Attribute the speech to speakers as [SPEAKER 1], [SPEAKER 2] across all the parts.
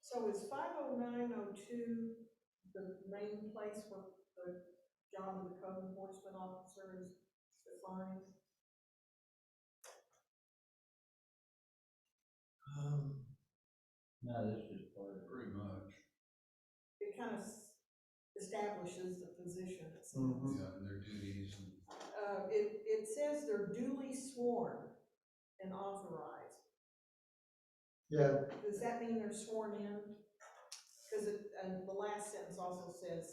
[SPEAKER 1] So is five oh nine oh two the main place where the job of the code enforcement officer is defined?
[SPEAKER 2] Um,
[SPEAKER 3] No, this is part of.
[SPEAKER 2] pretty much,
[SPEAKER 1] It kind of s- establishes the position, it
[SPEAKER 2] yeah,
[SPEAKER 4] Mm-hmm.
[SPEAKER 3] Mm.
[SPEAKER 1] seems.
[SPEAKER 2] and their duties and,
[SPEAKER 1] Uh, it, it says they're duly sworn and authorized.
[SPEAKER 5] Yeah,
[SPEAKER 1] Does that mean they're sworn in? Because it, and the last sentence also says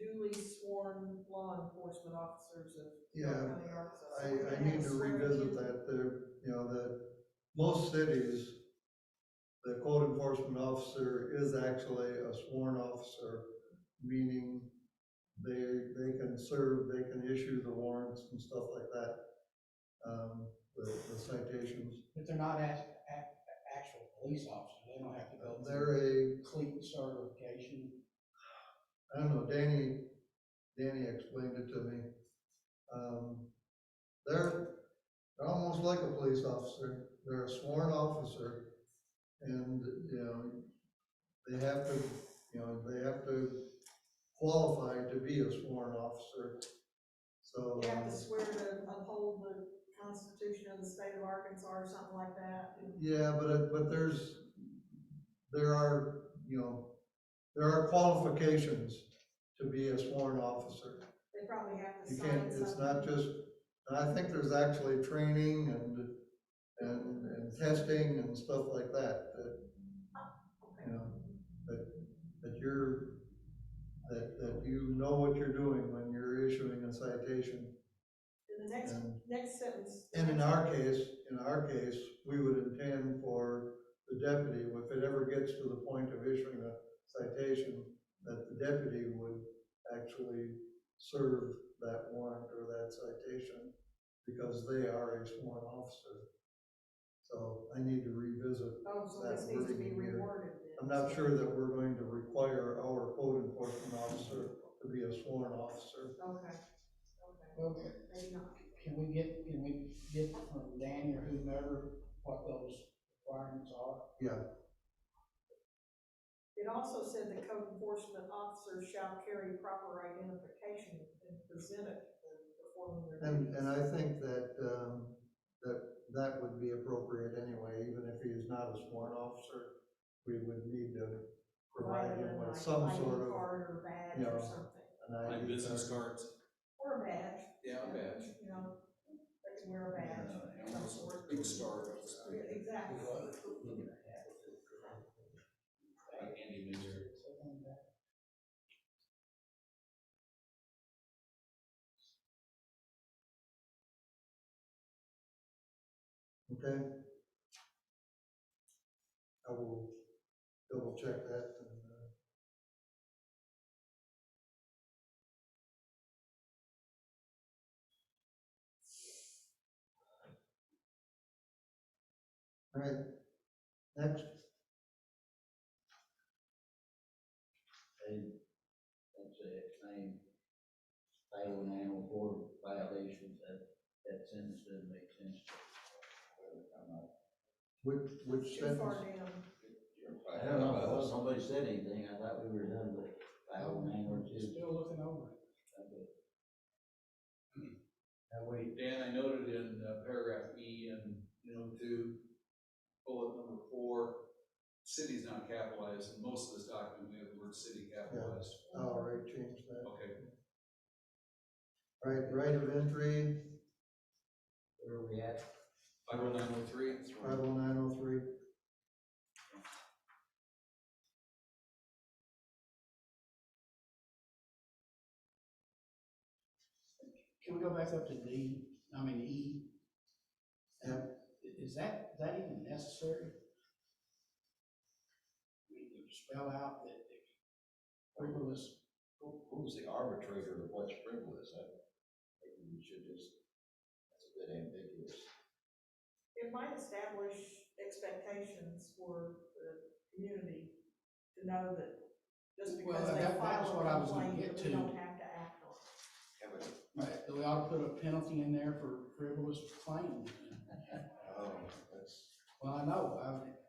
[SPEAKER 1] duly sworn law enforcement officers of York
[SPEAKER 5] yeah,
[SPEAKER 1] County, Arkansas.
[SPEAKER 5] I,
[SPEAKER 1] So
[SPEAKER 5] I
[SPEAKER 1] they
[SPEAKER 5] need to
[SPEAKER 1] swear in.
[SPEAKER 5] revisit that, there, you know, that most cities, the code enforcement officer is actually a sworn officer, meaning they, they can serve, they can issue the warrants and stuff like that, um, the the citations.
[SPEAKER 3] But they're not act, act, actual police officers, they don't have to go through
[SPEAKER 5] They're a,
[SPEAKER 3] complete certification.
[SPEAKER 5] I don't know, Danny, Danny explained it to me. Um, they're, they're almost like a police officer, they're a sworn officer, and, you know, they have to, you know, they have to qualify to be a sworn officer, so. um,
[SPEAKER 1] You have to swear to uphold the Constitution of the state of Arkansas or something like that.
[SPEAKER 5] Yeah, but, it- but there's, there are, you know, there are qualifications to be a sworn officer.
[SPEAKER 1] They probably have to
[SPEAKER 5] You
[SPEAKER 1] sign
[SPEAKER 5] can't,
[SPEAKER 1] something.
[SPEAKER 5] it's not just, and I think there's actually training and, and, and testing and stuff like that, that, you know, that, that you're, that, that you know what you're doing when you're issuing a citation.
[SPEAKER 1] In the next,
[SPEAKER 5] And,
[SPEAKER 1] next sentence.
[SPEAKER 5] and in our case, in our case, we would intend for the deputy, if it ever gets to the point of issuing a citation, that the deputy would actually serve that warrant or that citation because they are a sworn officer. So I need to revisit.
[SPEAKER 1] Oh, so
[SPEAKER 5] that
[SPEAKER 1] this needs to be
[SPEAKER 5] wording here.
[SPEAKER 1] reworded then.
[SPEAKER 5] I'm not sure that we're going to require our code enforcement officer to be a sworn officer.
[SPEAKER 1] Okay, okay,
[SPEAKER 3] Well,
[SPEAKER 1] maybe not.
[SPEAKER 3] can we get, can we get from Dan or whomever what those requirements are?
[SPEAKER 1] It also said the code enforcement officer shall carry proper identification and present it when performing their
[SPEAKER 5] And,
[SPEAKER 1] duties.
[SPEAKER 5] and I think that, um, that, that would be appropriate anyway, even if he is not a sworn officer. We would need to provide him with some
[SPEAKER 1] Rather than like
[SPEAKER 5] sort
[SPEAKER 1] ID
[SPEAKER 5] of
[SPEAKER 1] Card or badge
[SPEAKER 5] you
[SPEAKER 1] or
[SPEAKER 5] know,
[SPEAKER 1] something,
[SPEAKER 5] an
[SPEAKER 4] Like
[SPEAKER 5] ID.
[SPEAKER 4] business
[SPEAKER 5] card.
[SPEAKER 4] cards.
[SPEAKER 1] or a badge.
[SPEAKER 4] Yeah, I bet.
[SPEAKER 1] You know, they can wear a badge.
[SPEAKER 2] uh,
[SPEAKER 1] of some sort.
[SPEAKER 4] Big star.
[SPEAKER 1] Yeah, Exactly.
[SPEAKER 4] Like Andy Minger.
[SPEAKER 5] Okay. I will double check that and, uh. All right, next,
[SPEAKER 3] They, that's it, same, title and animal board violations, that, that sentence doesn't make sense.
[SPEAKER 5] which, which
[SPEAKER 1] Too far
[SPEAKER 5] sentence?
[SPEAKER 1] down.
[SPEAKER 3] I don't know, well, nobody said anything, I thought we were done with title and animal. Still looking over it. Now, wait,
[SPEAKER 4] Dan, I noted in uh, paragraph E and, you know, two, bullet number four, city's not capitalized, and most of this document, we have the word city capitalized.
[SPEAKER 5] Oh, right, change that.
[SPEAKER 4] Okay,
[SPEAKER 5] All right, right of entry,
[SPEAKER 3] where are we at?
[SPEAKER 4] five oh nine oh three.
[SPEAKER 5] five oh nine oh three.
[SPEAKER 6] Can we go back up to D, I mean, E? Um, i- Is that, is that even necessary? We can spell out that the frivolous,
[SPEAKER 7] Who, who's the arbitrator of what's frivolous? I think we should just, that's a bit ambiguous.
[SPEAKER 1] It might establish expectations for the community to know that just
[SPEAKER 6] Well,
[SPEAKER 1] because they
[SPEAKER 6] that- that's
[SPEAKER 1] file
[SPEAKER 6] what I
[SPEAKER 1] a
[SPEAKER 6] was gonna
[SPEAKER 1] complaint,
[SPEAKER 6] get
[SPEAKER 1] that we
[SPEAKER 6] to.
[SPEAKER 1] don't have to act on. it.
[SPEAKER 6] right, that we ought to put a penalty in there for frivolous claim.
[SPEAKER 7] Oh, that's,
[SPEAKER 6] Well, I know, I,